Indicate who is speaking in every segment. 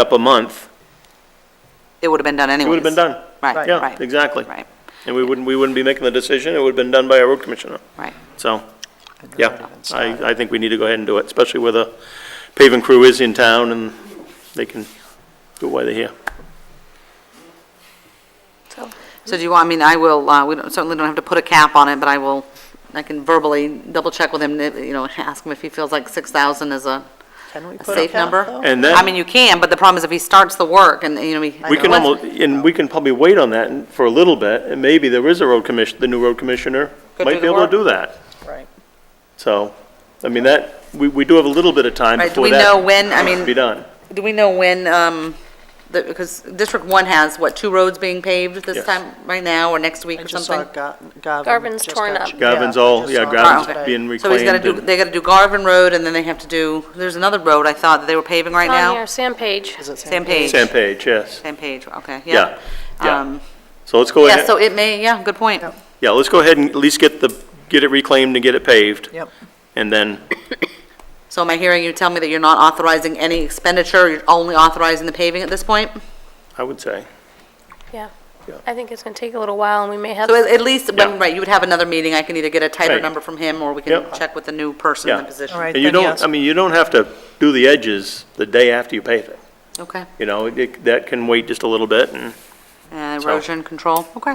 Speaker 1: up a month,
Speaker 2: It would have been done
Speaker 1: it
Speaker 2: anyways.
Speaker 1: would have been done.
Speaker 2: Right,
Speaker 1: Yeah,
Speaker 2: right,
Speaker 1: exactly.
Speaker 2: right,
Speaker 1: And we wouldn't, we wouldn't be making the decision, it would have been done by a road commissioner.
Speaker 2: right.
Speaker 1: So, yeah, I, I think we need to go ahead and do it, especially where the paving crew is in town and they can do it while they're here.
Speaker 2: So do you want, I mean, I will, uh, we don't- certainly don't have to put a cap on it, but I will, I can verbally double-check with him, uh, you know, ask him if he feels like 6,000 is a
Speaker 3: Can we
Speaker 2: a
Speaker 3: put a
Speaker 2: safe
Speaker 3: cap,
Speaker 2: number.
Speaker 3: though?
Speaker 1: And then-
Speaker 2: I mean, you can, but the problem is if he starts the work and, you know, he.
Speaker 1: We can
Speaker 2: let's-
Speaker 1: almost, and we can probably wait on that and- for a little bit, and maybe there is a road commission, the new road commissioner
Speaker 2: Could do
Speaker 1: might be
Speaker 2: the
Speaker 1: able
Speaker 2: work.
Speaker 1: to do that.
Speaker 3: Right.
Speaker 1: So, I mean, that, we, we do have a little bit of time
Speaker 2: Right, do
Speaker 1: before
Speaker 2: we
Speaker 1: that.
Speaker 2: know when- I
Speaker 1: needs to
Speaker 2: mean-
Speaker 1: Be done.
Speaker 2: Do we know when, um, the- because District 1 has, what, two roads being paved this
Speaker 1: Yes.
Speaker 2: time, right now, or next week
Speaker 3: I
Speaker 2: or
Speaker 3: just saw
Speaker 2: something?
Speaker 3: Gar- Garvin.
Speaker 4: Garvin's
Speaker 3: just
Speaker 4: torn
Speaker 3: got
Speaker 4: up.
Speaker 3: ch-
Speaker 1: Garvin's
Speaker 3: I
Speaker 1: all,
Speaker 3: just
Speaker 1: yeah,
Speaker 3: saw
Speaker 2: Oh,
Speaker 1: Garvin's
Speaker 3: that.
Speaker 2: okay.
Speaker 1: being
Speaker 2: So he's got to
Speaker 1: reclaimed.
Speaker 2: do,
Speaker 1: and-
Speaker 2: they got to do Garvin Road, and then they have to do, there's another road, I thought, that they were paving right
Speaker 4: On
Speaker 2: now?
Speaker 4: here, Sam Page.
Speaker 3: Is it Sam
Speaker 2: Same page.
Speaker 1: Same page, yes.
Speaker 2: Same page, okay,
Speaker 1: Yeah,
Speaker 2: yeah.
Speaker 1: yeah.
Speaker 2: Um,
Speaker 1: So let's go
Speaker 2: Yeah,
Speaker 1: ahead,
Speaker 2: so it may, yeah, good point.
Speaker 1: yeah, let's go ahead and at least get the, get it reclaimed and get it paved.
Speaker 3: Yep.
Speaker 1: And then,
Speaker 2: So am I hearing you tell me that you're not authorizing any expenditure, you're only authorizing the paving at this point?
Speaker 1: I would say,
Speaker 4: Yeah.
Speaker 1: Yeah.
Speaker 4: I think it's going to take a little while, and we may have,
Speaker 2: So at at least,
Speaker 1: Yeah.
Speaker 2: when, right, you would have another meeting, I can either get a tighter
Speaker 1: Right.
Speaker 2: number from him, or we
Speaker 1: Yep.
Speaker 2: can check with the new person in the
Speaker 1: Yeah.
Speaker 2: position.
Speaker 3: All right,
Speaker 1: and you don't,
Speaker 3: then yes.
Speaker 1: I mean, you don't have to do the edges the day after you pave it.
Speaker 2: Okay,
Speaker 1: You know, it- that can wait just a little bit and
Speaker 2: And
Speaker 1: So-
Speaker 2: uh, erosion control, okay.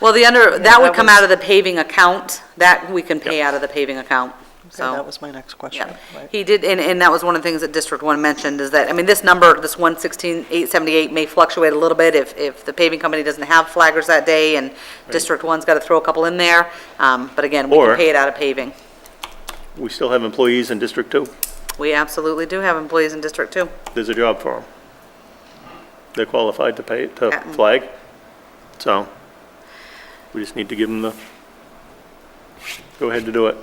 Speaker 2: Well, the under, that would
Speaker 3: that
Speaker 2: come
Speaker 3: was-
Speaker 2: out of the paving account, that we can pay out of the paving account,
Speaker 3: Okay,
Speaker 2: so.
Speaker 3: That was my next question.
Speaker 2: Yeah,
Speaker 3: right.
Speaker 2: he did, and, and that was one of the things that District One mentioned, is that, I mean, this number, this one sixteen, eight seventy-eight may fluctuate a little bit if, if the paving company doesn't have flaggers that day, and District One's gotta throw a couple in there, um, but again, we
Speaker 1: Or-
Speaker 2: can pay it out of paving.
Speaker 1: we still have employees in District Two.
Speaker 2: We absolutely do have employees in District Two.
Speaker 1: There's a job for them. They're qualified to pay, to
Speaker 2: Yeah.
Speaker 1: flag, so we just need to give them the, go ahead to do it.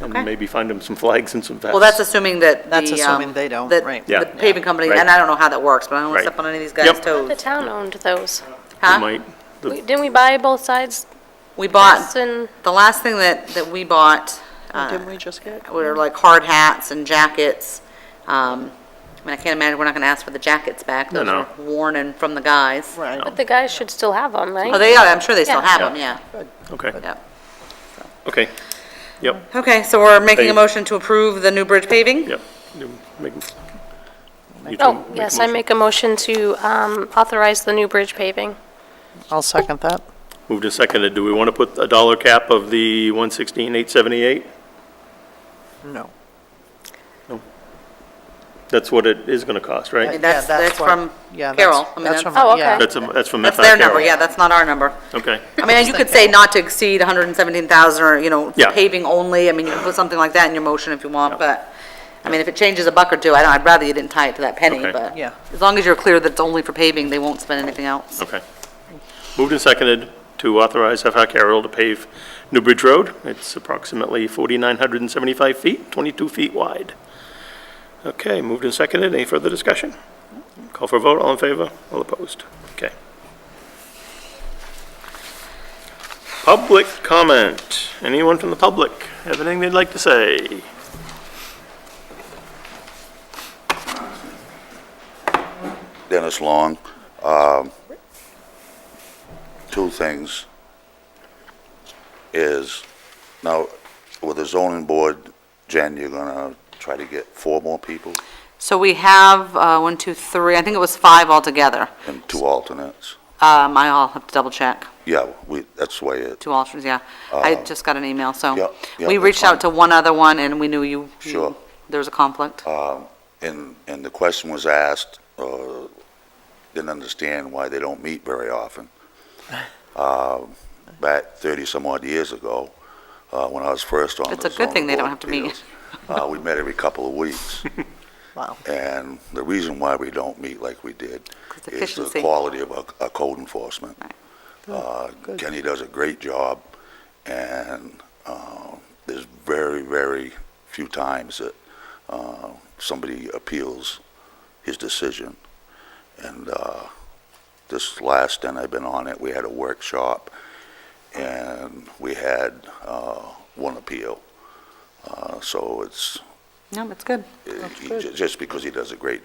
Speaker 1: And
Speaker 2: Okay.
Speaker 1: maybe find them some flags and some vests.
Speaker 2: Well, that's assuming that the,
Speaker 3: That's assuming
Speaker 2: um,
Speaker 3: they don't,
Speaker 2: that
Speaker 3: right.
Speaker 1: Yeah.
Speaker 2: The paving company,
Speaker 1: Right.
Speaker 2: and I don't know how that works, but I don't wanna
Speaker 1: Right.
Speaker 2: step on any of these
Speaker 1: Yep.
Speaker 2: guys'
Speaker 4: the
Speaker 2: toes.
Speaker 4: town owned those.
Speaker 1: We
Speaker 2: Huh?
Speaker 1: might, the-
Speaker 4: We- Didn't we buy both sides?
Speaker 2: We bought,
Speaker 4: Vests and-
Speaker 2: the last thing that, that we bought, uh,
Speaker 3: Oh, Didn't we just get?
Speaker 2: were like hard hats and jackets. Um, I mean, I can't imagine, we're not gonna ask for the jackets back.
Speaker 1: No,
Speaker 2: Those
Speaker 1: no.
Speaker 2: were worn and from the guys.
Speaker 3: Right.
Speaker 4: But the guys should still have them,
Speaker 2: Oh,
Speaker 4: right?
Speaker 2: they are, I'm sure they still
Speaker 4: Yeah.
Speaker 2: have them, yeah.
Speaker 1: okay,
Speaker 2: Yep.
Speaker 1: okay, yep,
Speaker 2: Okay, so we're making a
Speaker 1: Pave.
Speaker 2: motion to approve the new bridge paving?
Speaker 1: yep. You make- you two
Speaker 4: Oh,
Speaker 1: make a
Speaker 4: yes, I
Speaker 1: motion.
Speaker 4: make a motion to um, authorize the new bridge paving.
Speaker 3: I'll second that.
Speaker 1: Moved and seconded, do we want to put a dollar cap of the one sixteen, eight seventy-eight?
Speaker 3: No.
Speaker 1: That's what it is going to cost,
Speaker 2: I mean,
Speaker 1: right?
Speaker 2: that's,
Speaker 3: Yeah,
Speaker 2: that's
Speaker 3: what-
Speaker 2: from
Speaker 3: yeah, that's-
Speaker 2: Carol. I mean, that's-
Speaker 3: that's from-
Speaker 4: Oh,
Speaker 3: yeah.
Speaker 4: okay.
Speaker 1: That's, a- that's from
Speaker 2: That's
Speaker 1: FI
Speaker 2: their number,
Speaker 1: Carroll.
Speaker 2: yeah, that's not our number.
Speaker 1: Okay,
Speaker 2: I mean, you could say not to exceed 117,000, or, you know,
Speaker 1: Yeah.
Speaker 2: paving only, I mean, you can put something like that in your motion if you want, but, I mean, if it changes a buck or two, I don't, I'd rather you didn't tie it to that penny,
Speaker 1: Okay.
Speaker 2: but.
Speaker 3: Yeah.
Speaker 2: As long as you're clear that it's only for paving, they won't spend anything else.
Speaker 1: okay. Moved and seconded to authorize FI Carroll to pave New Bridge Road. It's approximately 4,975 feet, 22 feet wide. Okay, moved and seconded, any further discussion? Call for a vote, all in favor, all opposed? Okay. Public comment. Anyone from the public have anything they'd like to say?
Speaker 5: Dennis Long. Um, Two things is, now, with the zoning board, Jen, you're gonna try to get four more people
Speaker 2: So we have, uh, one, two, three, I think it was five altogether.
Speaker 5: and two alternates?
Speaker 2: Um, I all have to double check,
Speaker 5: Yeah, we, that's the way it,
Speaker 2: two alternates, yeah. I just got an email,
Speaker 5: yeah,
Speaker 2: so.
Speaker 5: yeah,
Speaker 2: Oh. We
Speaker 5: Uh-huh. that's
Speaker 2: reached out
Speaker 5: fine.
Speaker 2: to one other one, and we knew you. you-
Speaker 5: Sure.
Speaker 2: There was a conflict.
Speaker 5: um, and, and the question was asked, uh, didn't understand why they don't meet very often. Um, Back thirty-some odd years ago, uh, when I was first on the
Speaker 2: It's a good thing
Speaker 5: zoning
Speaker 2: they don't
Speaker 5: board
Speaker 2: have to meet.
Speaker 5: appeals, uh, we met every couple of weeks.
Speaker 3: Wow.
Speaker 5: And the reason why we don't meet like we did
Speaker 2: 'Cause
Speaker 5: is the
Speaker 2: efficiency.
Speaker 5: quality of our our code enforcement.
Speaker 2: Right.
Speaker 5: Uh, Kenny does a great job, and uh, there's very, very few times that uh, somebody appeals his decision. And uh, this last, and I've been on it, we had a workshop, and we had uh, one appeal. Uh, So it's,
Speaker 2: No, that's good.
Speaker 5: Uh, he- ju- Just because he does a great